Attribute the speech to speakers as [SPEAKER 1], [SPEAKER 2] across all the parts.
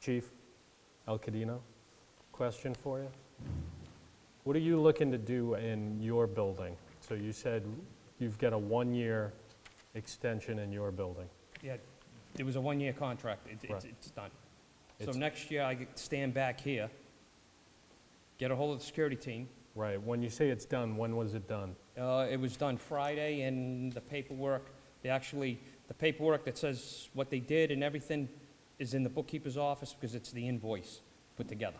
[SPEAKER 1] Chief El Cadino, question for you. What are you looking to do in your building? So you said you've got a one-year extension in your building.
[SPEAKER 2] Yeah, it was a one-year contract. It- It's,
[SPEAKER 1] Right.
[SPEAKER 2] it's done. So
[SPEAKER 1] It's-
[SPEAKER 2] next year, I get- stand back here, get a hold of the security team.
[SPEAKER 1] Right, when you say it's done, when was it done?
[SPEAKER 2] Uh, It was done Friday, and the paperwork, they actually, the paperwork that says what they did and everything is in the bookkeeper's office because it's the invoice put together.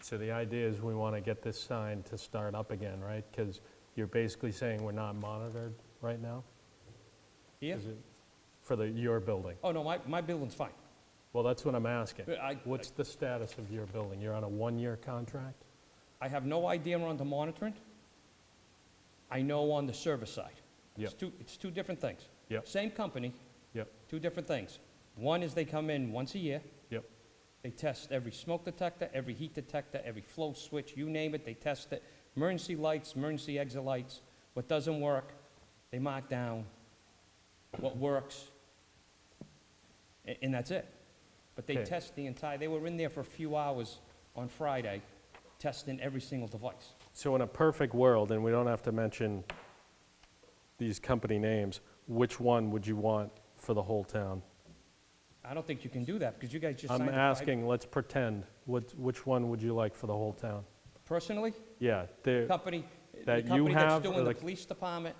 [SPEAKER 1] So the idea is we want to get this signed to start up again, right? Because you're basically saying we're not monitored right now?
[SPEAKER 2] Yeah?
[SPEAKER 1] Is it For the, your building?
[SPEAKER 2] Oh, no, my, my building's fine.
[SPEAKER 1] Well, that's what I'm asking.
[SPEAKER 2] But I-
[SPEAKER 1] What's the status of your building? You're on a one-year contract?
[SPEAKER 2] I have no idea on the monitoring. I know on the server side. It's
[SPEAKER 1] Yep.
[SPEAKER 2] two, it's two different things.
[SPEAKER 1] Yep.
[SPEAKER 2] Same company,
[SPEAKER 1] Yep,
[SPEAKER 2] two different things. One is they come in once a year,
[SPEAKER 1] yep,
[SPEAKER 2] They test every smoke detector, every heat detector, every flow switch, you name it, they test it. Emergency lights, emergency exit lights. What doesn't work, they mark down. What works, a- and that's it. But they
[SPEAKER 1] Okay.
[SPEAKER 2] test the entire, they were in there for a few hours on Friday, testing every single device.
[SPEAKER 1] So in a perfect world, and we don't have to mention these company names, which one would you want for the whole town?
[SPEAKER 2] I don't think you can do that, because you guys just signed
[SPEAKER 1] I'm
[SPEAKER 2] a five-
[SPEAKER 1] asking, let's pretend, what, which one would you like for the whole town?
[SPEAKER 2] Personally,
[SPEAKER 1] Yeah, there,
[SPEAKER 2] company, the
[SPEAKER 1] That you
[SPEAKER 2] company that's
[SPEAKER 1] have, or
[SPEAKER 2] doing the
[SPEAKER 1] the-
[SPEAKER 2] police department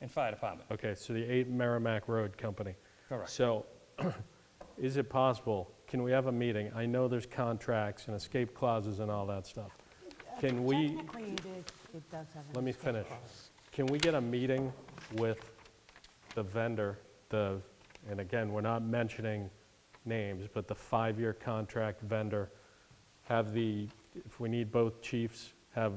[SPEAKER 2] and fire department,
[SPEAKER 1] okay, so the 8 Merrimack Road Company.
[SPEAKER 2] correct.
[SPEAKER 1] So is it possible, can we have a meeting? I know there's contracts and escape clauses and all that stuff. Can we,
[SPEAKER 3] Technically, it is, it does have. an
[SPEAKER 1] Let me
[SPEAKER 3] escape
[SPEAKER 1] finish.
[SPEAKER 3] clause.
[SPEAKER 1] Can we get a meeting with the vendor, the, and again, we're not mentioning names, but the five-year contract vendor? Have the, if we need both chiefs, have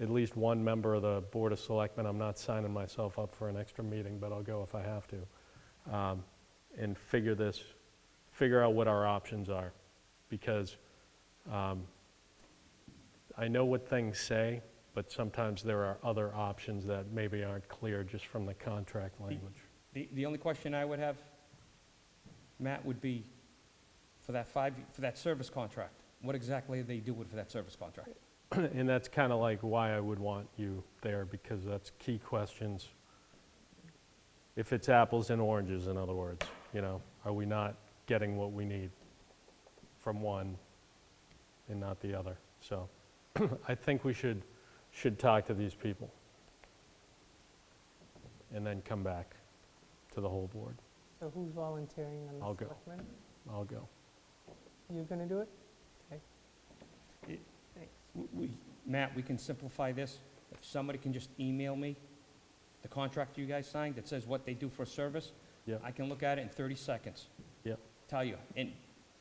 [SPEAKER 1] at least one member of the Board of Selectmen, I'm not signing myself up for an extra meeting, but I'll go if I have to, um, and figure this, figure out what our options are. Because um, I know what things say, but sometimes there are other options that maybe aren't clear just from the contract language.
[SPEAKER 2] The, the only question I would have, Matt, would be for that five, for that service contract, what exactly are they doing for that service contract?
[SPEAKER 1] And that's kind of like why I would want you there, because that's key questions. If it's apples and oranges, in other words, you know, are we not getting what we need from one and not the other? So I think we should, should talk to these people. And then come back to the whole board.
[SPEAKER 4] So who's volunteering on
[SPEAKER 1] I'll
[SPEAKER 4] the
[SPEAKER 1] go.
[SPEAKER 4] selectmen?
[SPEAKER 1] I'll go.
[SPEAKER 4] You're going to do it? Okay.
[SPEAKER 2] It-
[SPEAKER 4] Thanks.
[SPEAKER 2] We- we- Matt, we can simplify this. If somebody can just email me the contract you guys signed that says what they do for a service,
[SPEAKER 1] Yep.
[SPEAKER 2] I can look at it in 30 seconds,
[SPEAKER 1] Yep.
[SPEAKER 2] tell you. And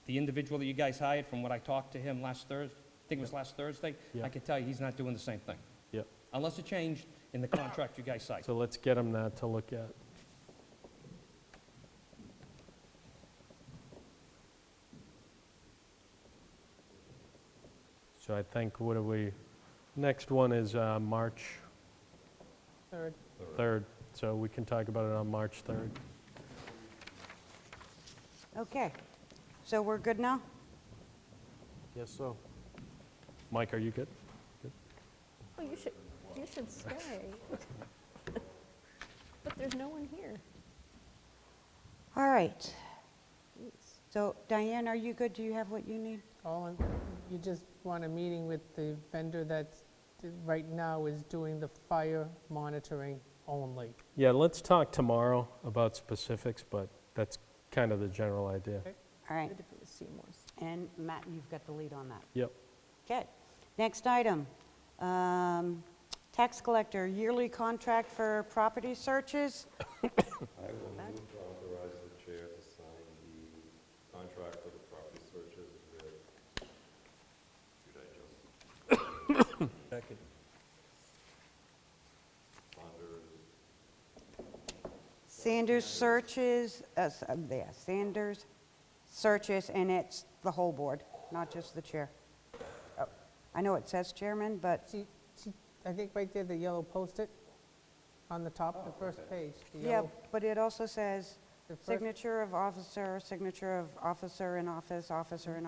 [SPEAKER 2] the individual that you guys hired, from what I talked to him last Thursday, I think it was last Thursday, I
[SPEAKER 1] Yep.
[SPEAKER 2] can tell you he's not doing the same thing.
[SPEAKER 1] Yep.
[SPEAKER 2] Unless it changed in the contract you guys signed.
[SPEAKER 1] So let's get them that to look at. So I think, what do we, next one is uh, March
[SPEAKER 4] Third,
[SPEAKER 1] 3rd, so we can talk about it on March 3rd.
[SPEAKER 3] Okay, so we're good now?
[SPEAKER 1] Yes, so. Mike, are you good?
[SPEAKER 5] Well, you should, you should stay. But there's no one here.
[SPEAKER 3] All right. So Diane, are you good? Do you have what you need?
[SPEAKER 4] all, in- you just want a meeting with the vendor that's, that right now is doing the fire monitoring only.
[SPEAKER 1] Yeah, let's talk tomorrow about specifics, but that's kind of the general idea.
[SPEAKER 3] All right,
[SPEAKER 5] If it was Seymour's.
[SPEAKER 3] and Matt, you've got the lead on that.
[SPEAKER 1] Yep.
[SPEAKER 3] Okay, next item. um, Tax collector, yearly contract for property searches.
[SPEAKER 6] I will move to authorize the chair to sign the contract for the property searches with Judah Joseph.
[SPEAKER 3] Sanders searches, uh, s- uh, yeah, Sanders searches, and it's the whole board, not just the chair. Oh, I know it says chairman, but,
[SPEAKER 4] She, she, I think right there, the yellow post-it on the top, the first page, the
[SPEAKER 3] yeah,
[SPEAKER 4] yellow.
[SPEAKER 3] but it also says
[SPEAKER 4] The first- Mm-hmm.
[SPEAKER 3] signature of officer, signature of officer in office, officer in